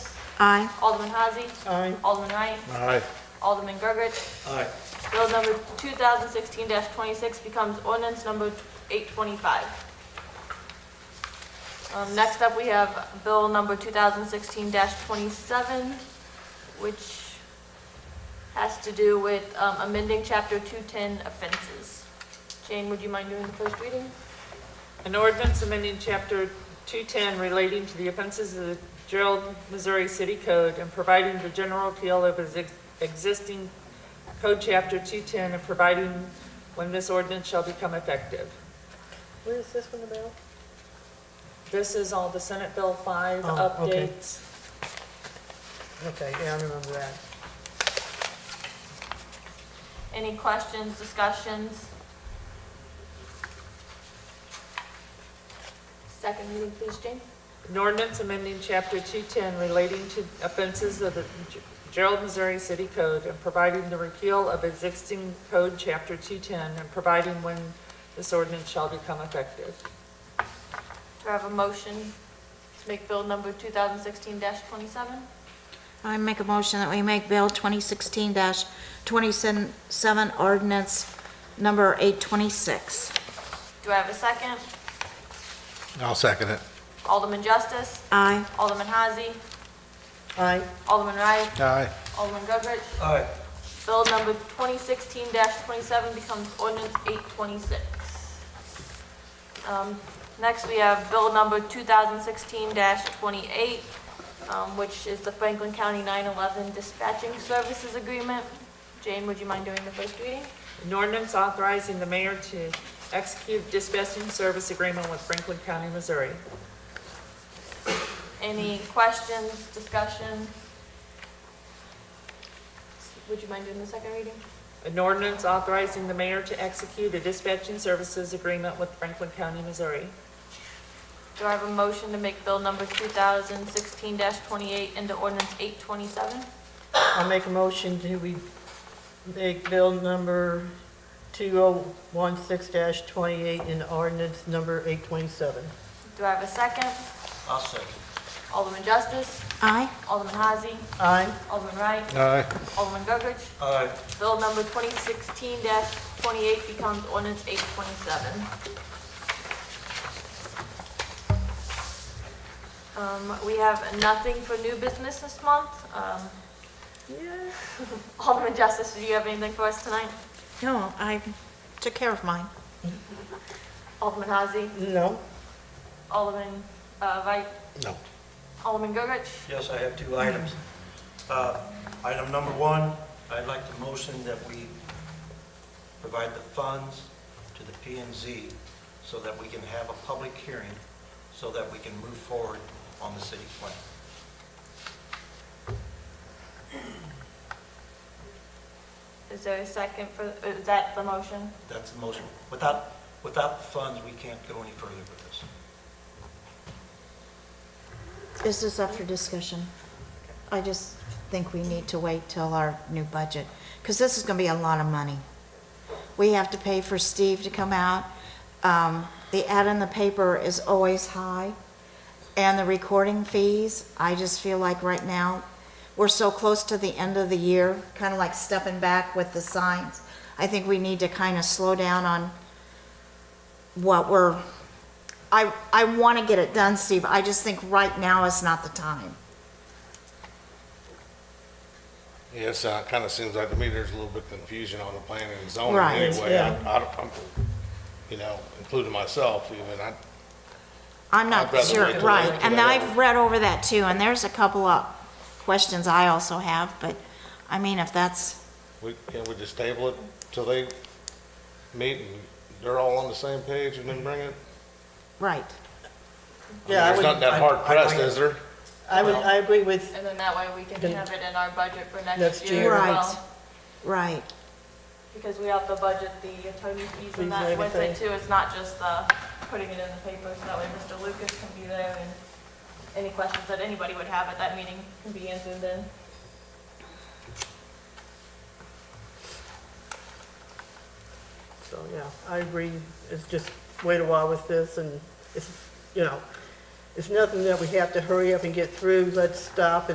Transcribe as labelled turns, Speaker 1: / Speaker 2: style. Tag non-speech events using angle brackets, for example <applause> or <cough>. Speaker 1: Aye.
Speaker 2: Alderman Hazy.
Speaker 3: Aye.
Speaker 2: Alderman Wright.
Speaker 4: Aye.
Speaker 2: Alderman Gergich.
Speaker 4: Aye.
Speaker 2: Bill number 2016-26 becomes ordinance number 825. Um, Next up, we have bill number 2016-27, which has to do with um, amending Chapter 210 offenses. Jane, would you mind doing the first reading?
Speaker 3: An ordinance amending Chapter 210 relating to the offenses of the Gerald, Missouri City Code and providing the general appeal of its ex- existing Code Chapter 210 and providing when this ordinance shall become effective.
Speaker 5: Where is this one about?
Speaker 3: This is all the Senate Bill 5
Speaker 5: Oh, okay.
Speaker 3: updates.
Speaker 5: Okay, yeah, I remember that.
Speaker 2: Any questions, discussions? Second reading, please, Jane.
Speaker 3: An ordinance amending Chapter 210 relating to offenses of the G- Gerald, Missouri City Code and providing the repeal of existing code Chapter 210 and providing when this ordinance shall become effective.
Speaker 2: Do I have a motion to make bill number 2016-27?
Speaker 1: I make a motion that we make Bill 2016-27 ordinance number 826.
Speaker 2: Do I have a second?
Speaker 4: I'll second it.
Speaker 2: Alderman Justice,
Speaker 1: Aye.
Speaker 2: Alderman Hazy,
Speaker 5: Aye.
Speaker 2: Alderman Wright,
Speaker 4: Aye.
Speaker 2: Alderman Goodrich.
Speaker 4: Aye.
Speaker 2: Bill number 2016-27 becomes ordinance 826. Um, Next, we have bill number 2016-28, um, which is the Franklin County 911 Dispatching Services Agreement. Jane, would you mind doing the first reading?
Speaker 3: An ordinance authorizing the mayor to execute dispatching service agreement with Franklin County, Missouri.
Speaker 2: Any questions, discussion? Would you mind doing the second reading?
Speaker 3: An ordinance authorizing the mayor to execute a dispatching services agreement with Franklin County, Missouri.
Speaker 2: Do I have a motion to make bill number 2016-28 into ordinance 827?
Speaker 5: I'll make a motion to we make bill number 2016-28 and ordinance number 827.
Speaker 2: Do I have a second?
Speaker 6: I'll second.
Speaker 2: Alderman Justice,
Speaker 1: Aye.
Speaker 2: Alderman Hazy,
Speaker 5: Aye.
Speaker 2: Alderman Wright,
Speaker 4: Aye.
Speaker 2: Alderman Gergich.
Speaker 6: Aye.
Speaker 2: Bill number 2016-28 becomes ordinance 827. Um, We have nothing for new business this month. Um, <laughs> Alderman Justice, do you have anything for us tonight?
Speaker 1: No, I took care of mine.
Speaker 2: Alderman Hazy,
Speaker 5: No?
Speaker 2: Alderman uh, Wright,
Speaker 4: No.
Speaker 2: Alderman Gergich.
Speaker 6: Yes, I have two items. Uh, Item number one, I'd like to motion that we provide the funds to the P and Z so that we can have a public hearing, so that we can move forward on the city plan.
Speaker 2: Is there a second for, is that the motion?
Speaker 6: That's the motion. Without, without the funds, we can't go any further with this.
Speaker 1: This is up for discussion. I just think we need to wait till our new budget, because this is going to be a lot of money. We have to pay for Steve to come out. Um, The ad in the paper is always high, and the recording fees, I just feel like right now, we're so close to the end of the year, kind of like stepping back with the signs. I think we need to kind of slow down on what we're I, I want to get it done, Steve. I just think right now is not the time.
Speaker 4: Yes, uh, kind of seems like to me there's a little bit of confusion on the planning and zoning
Speaker 1: Right,
Speaker 4: anyway.
Speaker 5: yeah.
Speaker 4: I- I don't- I'm, you know, including myself even, I,
Speaker 1: I'm
Speaker 4: I'd
Speaker 1: not
Speaker 4: rather
Speaker 1: sure,
Speaker 4: wait till
Speaker 1: right.
Speaker 4: after
Speaker 1: And
Speaker 4: that.
Speaker 1: I've read over that too, and there's a couple of questions I also have, but, I mean, if that's,
Speaker 4: we, can we just table it till they meet and they're all on the same page and then bring it?
Speaker 1: right.
Speaker 5: Yeah, I
Speaker 4: It's not
Speaker 5: would,
Speaker 4: that hard
Speaker 6: I- I-
Speaker 4: pressed, is there?
Speaker 5: I would, I agree with,
Speaker 2: And then that way we can
Speaker 5: Then-
Speaker 2: have it in our budget for next
Speaker 5: Next
Speaker 2: year
Speaker 5: year.
Speaker 2: as
Speaker 1: Right.
Speaker 2: well.
Speaker 1: Right.
Speaker 2: Because we have to budget the attorney fees and
Speaker 5: Fees
Speaker 2: that
Speaker 5: and
Speaker 2: with it
Speaker 5: everything.
Speaker 2: too. It's not just the putting it in the paper, so that way Mr. Lucas can be there and any questions that anybody would have at that meeting can be answered then.
Speaker 5: so, yeah, I agree. It's just wait a while with this and it's, you know, it's nothing that we have to hurry up and get through. Let's stop